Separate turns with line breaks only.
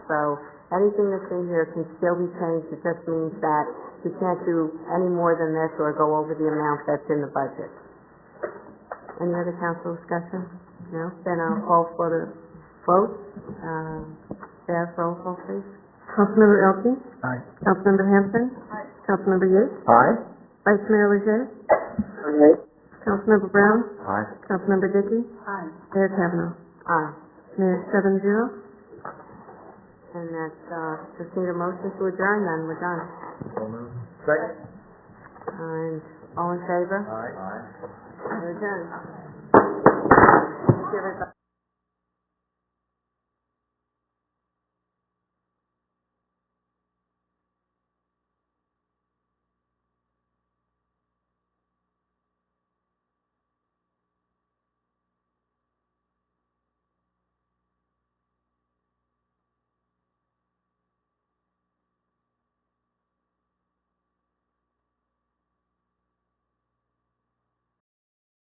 So anything that's in here can still be changed. It just means that you can't do any more than this or go over the amount that's in the budget. Any other council discussion? No? Then I'll call for the vote. Um, Bev, roll call, please.
Councilmember Elton.
Aye.
Councilmember Hampton. Aye. Councilmember Yates.
Aye.
Vice Mayor Lejeune.
Aye.
Councilmember Brown.
Aye.
Councilmember Dickey.
Aye.
Mayor Kavanaugh.
Aye.
Mayor seven zero.
And that's, uh, just need a motion to adjourn, then we're done.
Second.
And all in favor?
Aye.
We're adjourned. Give it back.